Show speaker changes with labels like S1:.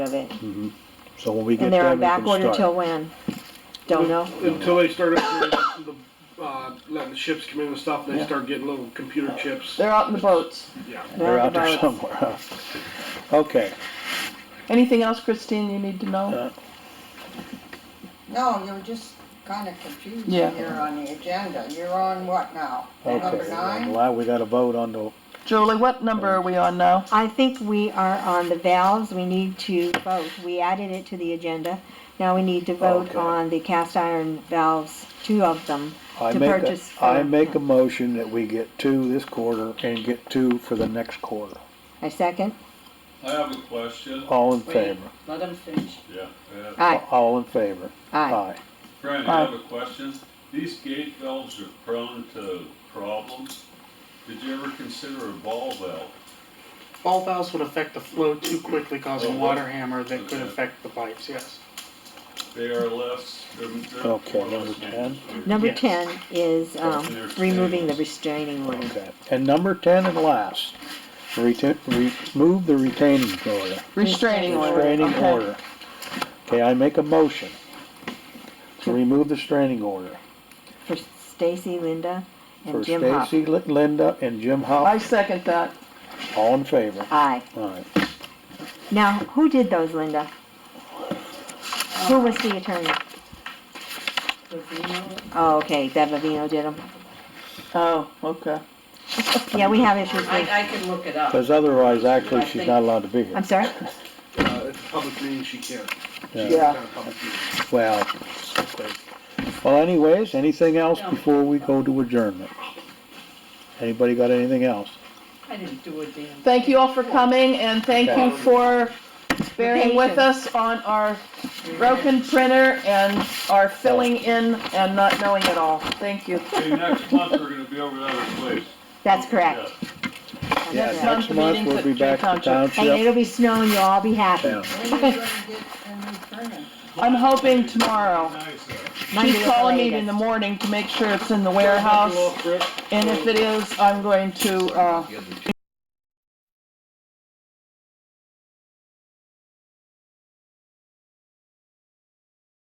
S1: of it.
S2: Mhm. So when we get
S1: And they're
S2: done,
S1: on
S2: we
S1: back order
S2: can
S1: till
S2: start.
S1: when? Don't know.
S3: Until they start up the, the, uh, letting the ships come in and stuff, they
S2: Yeah.
S3: start getting little computer chips.
S1: They're out in the boats.
S3: Yeah.
S2: They're
S1: on
S2: out
S1: the
S2: there
S1: boats.
S2: somewhere. huh? Okay,
S4: Anything else, Christine, you need to
S2: Uh,
S4: know?
S5: No, you were just kind of confused
S4: Yeah.
S5: here on the agenda. You're on what now? Number
S2: okay.
S5: nine?
S2: Well, we got a vote on the,
S4: Julie, what number are we on now?
S1: I think we are on the valves. We need to vote. We added it to the agenda. Now we need to vote
S2: Okay.
S1: on the cast iron valves, two of them.
S2: I
S1: To
S2: make, a-
S1: purchase for-
S2: I make a motion that we get two this quarter and get two for the next quarter.
S1: I second.
S6: I have a question.
S2: All in
S7: Wait.
S2: favor?
S7: Let them finish.
S6: Yeah. uh,
S1: Aye,
S2: All in favor?
S1: aye.
S6: Fran, I have a question. These gate valves are prone to problems. Did you ever consider a ball valve?
S8: Ball valves would affect the flow too quickly,
S6: Oh,
S8: causing water hammer that could
S6: okay.
S8: affect the pipes, yes.
S6: They are less, they're, they're.
S2: Okay,
S6: more or
S2: number
S6: less
S2: 10.
S6: dangerous.
S1: Number
S8: Yes.
S1: ten is, um,
S6: There's
S1: removing the
S6: standards.
S1: restraining order.
S2: Okay. And number ten and last, retain, remove the retaining order,
S4: Restraining order.
S2: restraining
S4: okay.
S2: order. Okay, I make a motion to remove the restraining order
S1: For Stacy, Linda,
S2: for
S1: and Jim Hop.
S2: Stacy, Li- Linda, and Jim
S4: I
S2: Hop.
S4: second that.
S2: All in favor?
S1: Aye.
S2: All right.
S1: Now, who did those, Linda? Who was the attorney? Oh, okay, Deb Vino did them.
S4: Oh, okay.
S1: Yeah, we have issues
S7: I,
S1: with,
S7: I can look it up.
S2: Because otherwise, actually, she's not allowed to be here.
S1: I'm sorry?
S3: Uh, it's a public meeting, she can't.
S2: Yeah.
S3: It's not
S4: Yeah.
S3: a public meeting.
S2: Well, well anyways, anything else
S7: No.
S2: before we go to adjournment? Anybody got anything else?
S7: I didn't do a damn.
S4: Thank you all for coming and thank you for bearing with
S1: Patience.
S4: us on our broken printer and our filling in and not knowing it all. Thank you.
S6: Hey, next month, we're gonna be over the other place.
S1: That's correct.
S6: Yeah.
S1: That's
S2: Yeah,
S1: correct.
S4: month
S2: next
S4: the
S2: month
S4: meeting's
S2: we'll
S4: at
S2: be back
S4: Jay
S2: to
S4: Township.
S1: And
S2: township.
S1: it'll be snowing, you'll all be happy.
S2: Yeah.
S5: When are you gonna get a new printer?
S4: I'm hoping tomorrow.
S6: Nice, uh,
S1: Monday
S4: She's
S1: at the
S4: calling me
S1: latest.
S4: in the morning to make sure it's in the
S3: Well,
S4: warehouse.
S3: Chris,
S4: And if it is, I'm going to, uh,